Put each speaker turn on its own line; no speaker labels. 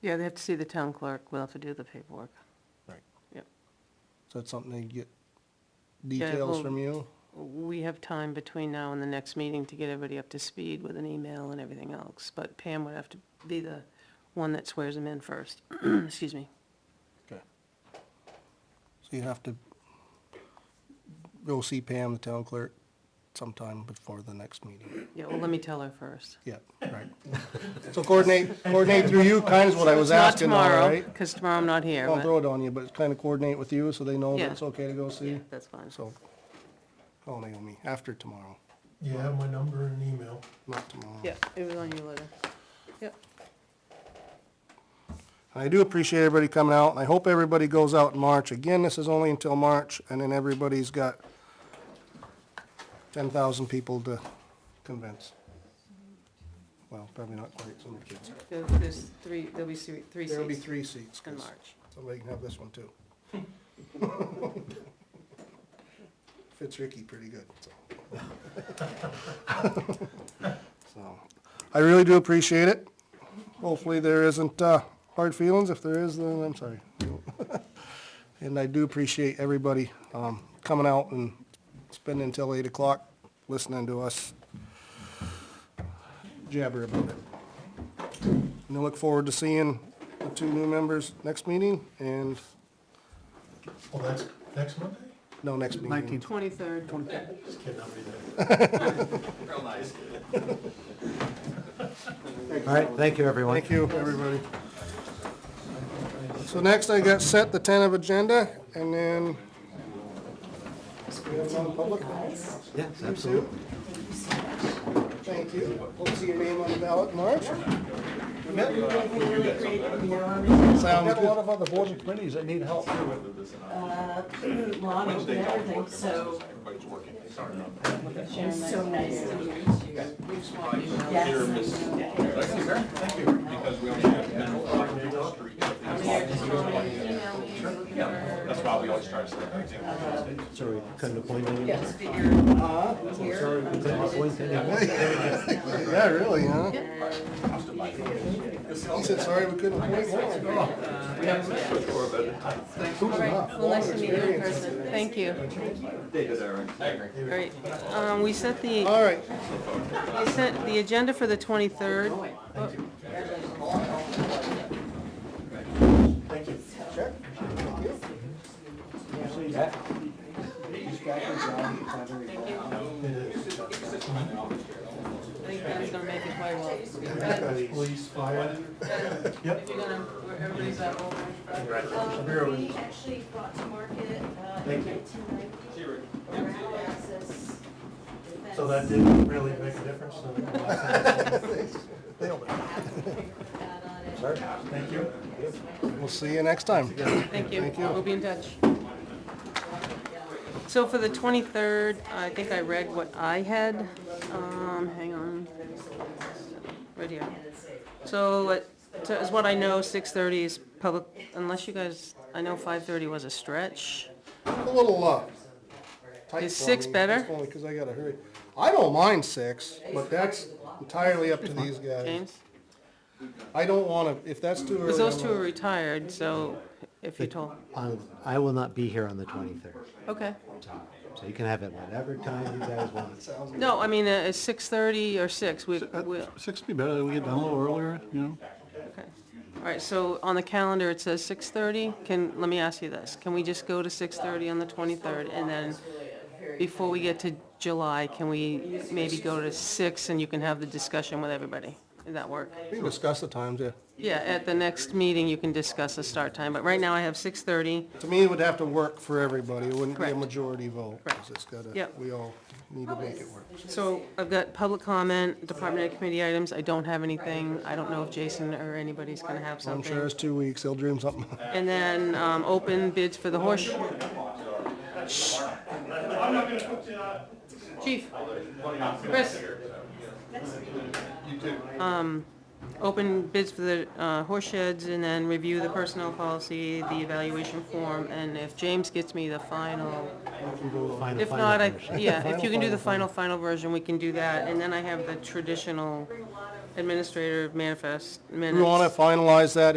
Yeah, they have to see the town clerk, we'll have to do the paperwork.
Right.
Yep.
So that's something to get details
well-
from you?
We have time between now and the next meeting to get everybody up to speed with an email and everything else, but Pam would have to be the one that swears them in first. Excuse me.
Okay. So you have to go see Pam, the town clerk, sometime before the next meeting.
Yeah, well, let me tell her first.
Yeah, right. So coordinate, coordinate through you, kind of is what I was asking, all
Not tomorrow,
right?
because tomorrow I'm not here,
I'll
but,
throw it on you, but kind of coordinate with you so they know
Yeah.
that it's okay to go see.
yeah, that's fine.
So, call Naomi after tomorrow,
You have my number and email.
not tomorrow.
Yeah, it was on your letter. Yep.
I do appreciate everybody coming out, and I hope everybody goes out in March. Again, this is only until March, and then everybody's got ten thousand people to convince. Well, probably not quite so many kids.
There- There's three, there'll be three three
There'll be
seats
three seats,
in
'cause
March.
somebody can have this one too. Fits Ricky pretty good, so. So, I really do appreciate it. Hopefully there isn't, uh, hard feelings. If there is, then I'm sorry. And I do appreciate everybody, um, coming out and spending until eight o'clock listening to us jabber about it. And I look forward to seeing the two new members next meeting and,
Oh, that's next Monday?
no, next meeting.
Twenty-third.
Just kidding, I'll be there.
All right, thank you, everyone.
Thank you, everybody. So next I got set the tentative agenda and then. We have non-public?
Yes, absolutely.
Thank you. Hope to see your name on the ballot in March.
We've
Sounds
got a lot
good.
of other boards and committees that need help.
Uh, Lonnie and everything, so. It's so nice to meet you. Yes.
That's why we always try to say everything.
Sorry, we couldn't appoint anyone.
Yes, but you're
Sorry,
here.
we couldn't appoint anyone.
Yeah, really, huh? He said, sorry, we couldn't wait more.
All right, well, nice to meet you in person. Thank you. Great. Um, we set the.
All right,
I sent the agenda for the 23rd. I think Ben's gonna make it quite well.
Police, fire. Yep.
If you're gonna, where everybody's at over.
Um,
Bureau
we
is-
actually brought to market, uh,
Thank
in
you.
nineteen ninety, around access.
So that didn't really make a difference, so.
Sorry?
Thank you.
we'll see you next time.
Thank you. We'll be in touch. So for the 23rd, I think I read what I had. Um, hang on. Right here. So it, so is what I know, 6:30 is public, unless you guys, I know 5:30 was a stretch.
A little, uh, tight
Is
for
six
me,
better?
just Only because I gotta hurry. I don't mind six, but that's entirely up to these guys.
James?
I don't wanna, if that's too early.
Because those
I'm
two
not-
are retired, so if you told,
Um, I will not be here on the 23rd,
okay.
so you can have it whatever time you guys want.
No, I mean, uh, it's 6:30 or 6, we,
uh,
we,
Six would be better, we get done a little earlier, you know?
Okay. All right, so on the calendar, it says 6:30. Can, let me ask you this. Can we just go to 6:30 on the 23rd? And then before we get to July, can we maybe go to 6 and you can have the discussion with everybody? Does that work?
We can discuss the times, yeah.
Yeah, at the next meeting, you can discuss the start time, but right now I have 6:30.
To me, it would have to work for everybody. It wouldn't be a
Correct.
majority vote. 'cause
Correct.
It's gotta,
Yep.
we all need to make it work.
So I've got public comment, department and committee items. I don't have anything. I don't know if Jason or anybody's going to have
I'm
something.
sure it's two weeks, he'll dream something.
And then um, open bids for the horse. Shh. Chief, Chris. Um, Open bids for the uh, horse sheds and then review the personnel policy, the evaluation form, and if James gets me the final,
Find a
if
final
not, I,
version.
yeah, if you can do the final, final version, we can do that. And then I have the traditional administrator manifest minutes.
We wanna finalize that,